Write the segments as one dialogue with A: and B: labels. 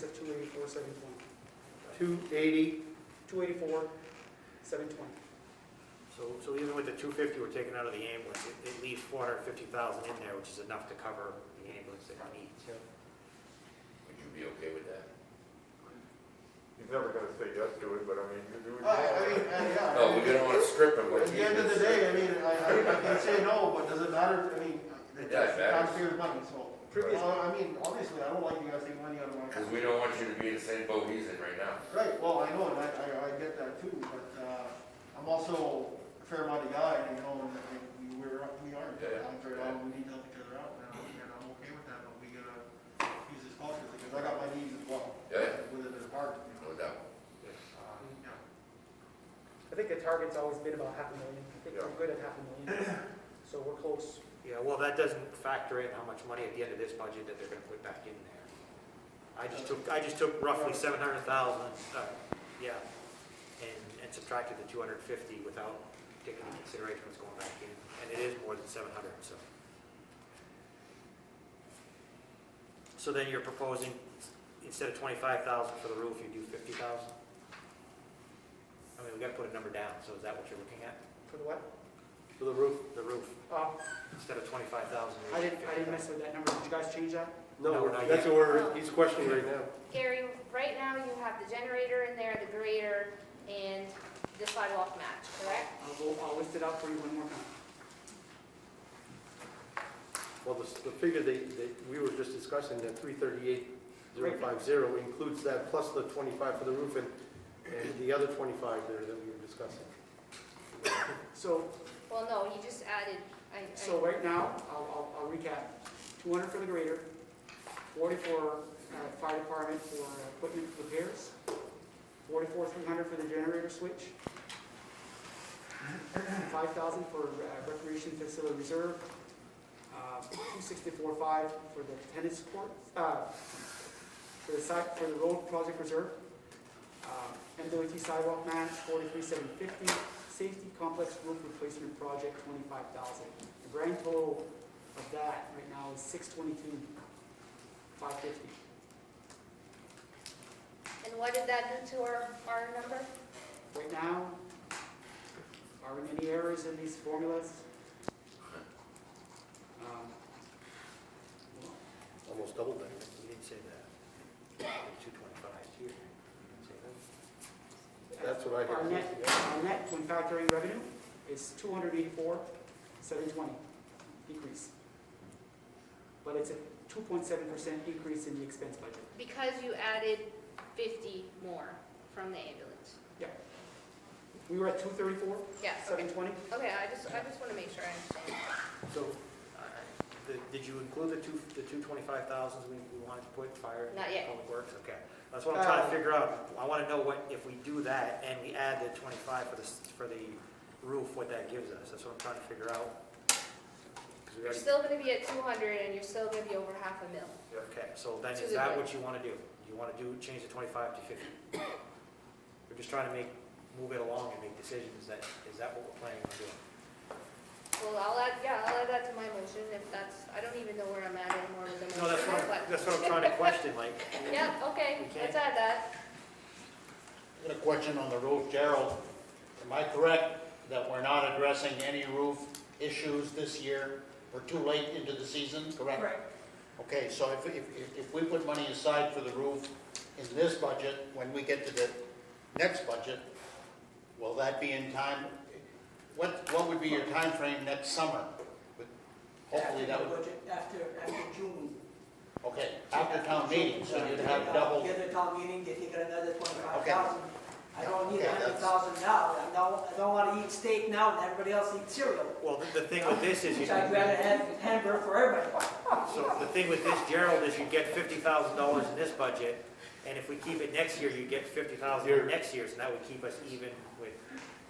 A: eighty-four, seven twenty. Two eighty? Two eighty-four, seven twenty.
B: So, so even with the two fifty we're taking out of the ambulance, it, it leaves four hundred and fifty thousand in there, which is enough to cover the ambulance that we need.
C: Would you be okay with that?
D: He's never gonna say yes to it, but I mean, you do it.
E: I, I mean, uh, yeah.
C: No, we don't wanna strip him, but.
E: At the end of the day, I mean, I, I, I can say no, but does it matter, I mean,
C: Yeah,
E: it's
C: it matters.
E: taxpayers' money, so.
A: Previous-
E: Well, I mean, obviously, I don't like you guys taking money out of my
C: Cause
E: account.
C: we don't want you to be in the same boat he's in right now.
E: Right, well, I know, and I, I, I get that too, but, uh, I'm also a fair money guy, and you know, and, and we, we're, we aren't.
C: Yeah,
E: I'm very,
C: yeah.
E: well, we need to help each other out, and I'm, and I'm okay with that, but we gotta use this culture, because I got my needs as well.
C: Yeah.
E: Within the department, you
C: No
E: know,
C: doubt.
E: uh, yeah.
A: I think the target's always been about half a million. I think
D: Yeah.
A: we're good at half a million, so we're close.
B: Yeah, well, that doesn't factor in how much money at the end of this budget that they're gonna put back in there. I just took, I just took roughly seven hundred thousand, uh, yeah, and, and subtracted the two hundred and fifty without taking into consideration what's going back in, and it is more than seven hundred, so. So then you're proposing, instead of twenty-five thousand for the roof, you do fifty thousand? I mean, we gotta put a number down, so is that what you're looking at?
A: For the what?
B: For the roof? The roof,
A: Uh,
B: instead of twenty-five thousand.
A: I didn't, I didn't mess with that number. Did you guys change that?
B: No,
F: No,
B: not
F: that's
B: yet.
F: what we're, he's questioning right now.
G: Gary, right now you have the generator in there, the grader, and the sidewalk match, correct?
A: I'll go, I'll list it out for you one more time.
F: Well, the, the figure that, that we were just discussing, that three thirty-eight zero five zero includes that plus the twenty-five for the roof and, and the other twenty-five there that we were discussing.
A: So,
G: Well, no, he just added, I,
A: so
G: I,
A: right now, I'll, I'll, I'll recap. Two hundred for the grader, forty for, uh, fire department for equipment repairs, forty-four, three hundred for the generator switch, five thousand for uh, recreation facility reserve, uh, two sixty-four five for the tennis court, uh, for the side, for the road project reserve, uh, MWT sidewalk match, forty-three seven fifty, safety complex roof replacement project, twenty-five thousand. The grand total of that right now is six twenty-two five fifty.
G: and what did that do to our, our number?
A: Right now, are there any errors in these formulas? Um, well,
B: Almost doubled that, you didn't say that. Two twenty-five here, you didn't say that.
F: That's what I hear.
A: Our net, our net when factoring revenue is two hundred eighty-four, seven twenty decrease. But it's a two point seven percent increase in the expense budget.
G: Because you added fifty more from the ambulance.
A: We were at two thirty-four,
G: Yeah, okay,
A: seven twenty.
G: okay, I just, I just wanna make sure I understand.
B: So, uh, the- did you include the two, the two twenty-five thousands we we wanted to put fire?
G: Not yet.
B: Public Works, okay. That's what I'm trying to figure out. I want to know what, if we do that and we add the twenty-five for the, s- for the roof, what that gives us. That's what I'm trying to figure out. 'Cause we
G: You're
B: already-
G: still gonna be at two hundred and you're still gonna be over half a mil.
B: Okay, so then
G: To
B: is
G: the
B: that
G: good.
B: what you want to do? You want to do, change the 25 to 50? We're just trying to make, move it along and make decisions, that, is that what we're planning on doing?
G: Well, I'll add, yeah, I'll add that to my motion if that's, I don't even know where I'm at anymore with the motion.
B: No, that's what,
G: but-
B: I'm- that's what I'm trying to question, like,
G: Yeah, okay,
B: We can't-
G: let's add that.
H: I got a question on the roof, Gerald. Am I correct that we're not addressing any roof issues this year? We're too late into the season, correct? Okay, so if, if, if- if we put money aside for the roof in this budget, when we get to the next budget, will that be in time? What, what would be your time frame next summer? But Hopefully that would,
I: Budget After, after June.
H: okay, after town meeting, so you'd have double.
I: Get a town meeting, get, you get another twenty-five thousand. I don't need
H: Okay,
I: a
H: that's-
I: hundred thousand now, I don't, I don't wanna eat steak now, and everybody else eats cereal.
B: well, the- the thing with this is, you
I: Which I'd rather have hamburger for everybody.
B: so the thing with this, Gerald, is you get $50,000 in this budget, and if we keep it next year, you get 50,000 next year's, and that would keep us even with,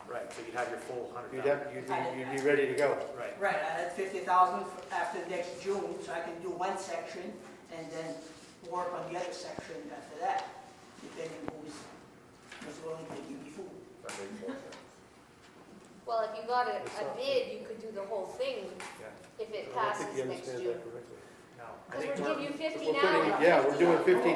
B: right, so you'd have your full
F: You'd
B: 100,000.
F: have, you'd be, you'd be ready to go.
B: Right,
I: Right, I had fifty thousand after next June, so I can do one section, and then work on the other section after that, depending who's, who's willing to give me food.
D: That makes more sense.
G: Well, if you got a, a bid, you could do the whole thing if
F: I don't
G: it
F: think
G: passes
F: you
G: next
F: understand
G: June.
F: that correctly.
B: no. I
G: Because
B: think
G: we're
B: we're-
G: giving you fifty
F: We're
G: now
F: putting-
G: and
F: Yeah, we're doing
G: fifty.
F: fifty